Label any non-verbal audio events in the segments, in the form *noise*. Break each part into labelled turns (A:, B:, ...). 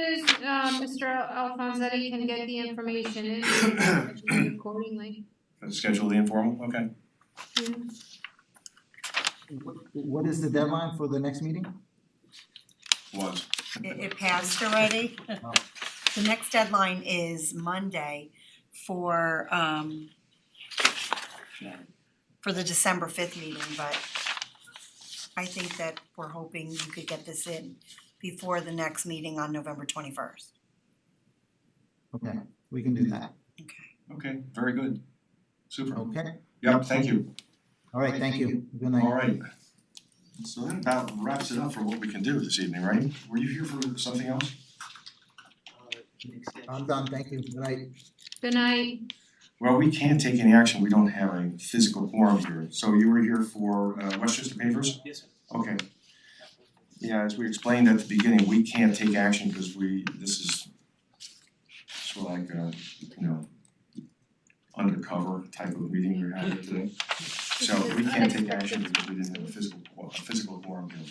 A: um, Mr. Al- Alfonsetti can get the information in and accordingly.
B: Schedule the informal, okay.
A: Yeah.
C: Wh- What is the deadline for the next meeting?
B: Was.
D: It it passed already. *laughs* The next deadline is Monday for um yeah, for the December fifth meeting, but I think that we're hoping you could get this in before the next meeting on November twenty first.
C: Okay, we can do that.
B: Okay, very good. Super.
C: Okay,
B: Yep, thank you.
C: all right, thank you. Good night.
B: All right. So that about wraps it up for what we can do this evening, right? Were you here for something else?
C: I'm done, thank you. Good night.
A: Good night.
B: Well, we can't take any action. We don't have a physical quorum here. So you were here for uh Westchester Papers?
E: Yes, sir.
B: Okay. Yeah, as we explained at the beginning, we can't take action because we, this is sort of like a, you know, undercover type of meeting we're having today. So we can't take action because we didn't have a physical, qu- a physical quorum here.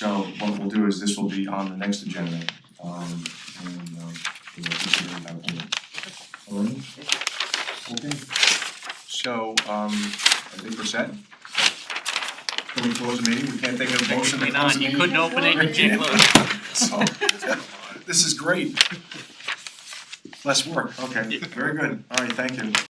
B: So what we'll do is this will be on the next agenda, um, and, um, we'll consider it that way. Alright? Okay. So, um, I think we're set. Can we close the meeting? We can't take a motion to
E: Technically
B: close
E: not,
B: the
E: you
B: meeting?
E: couldn't open it, you can't close it.
B: So, this is great. Less work, okay, very good, alright, thank you.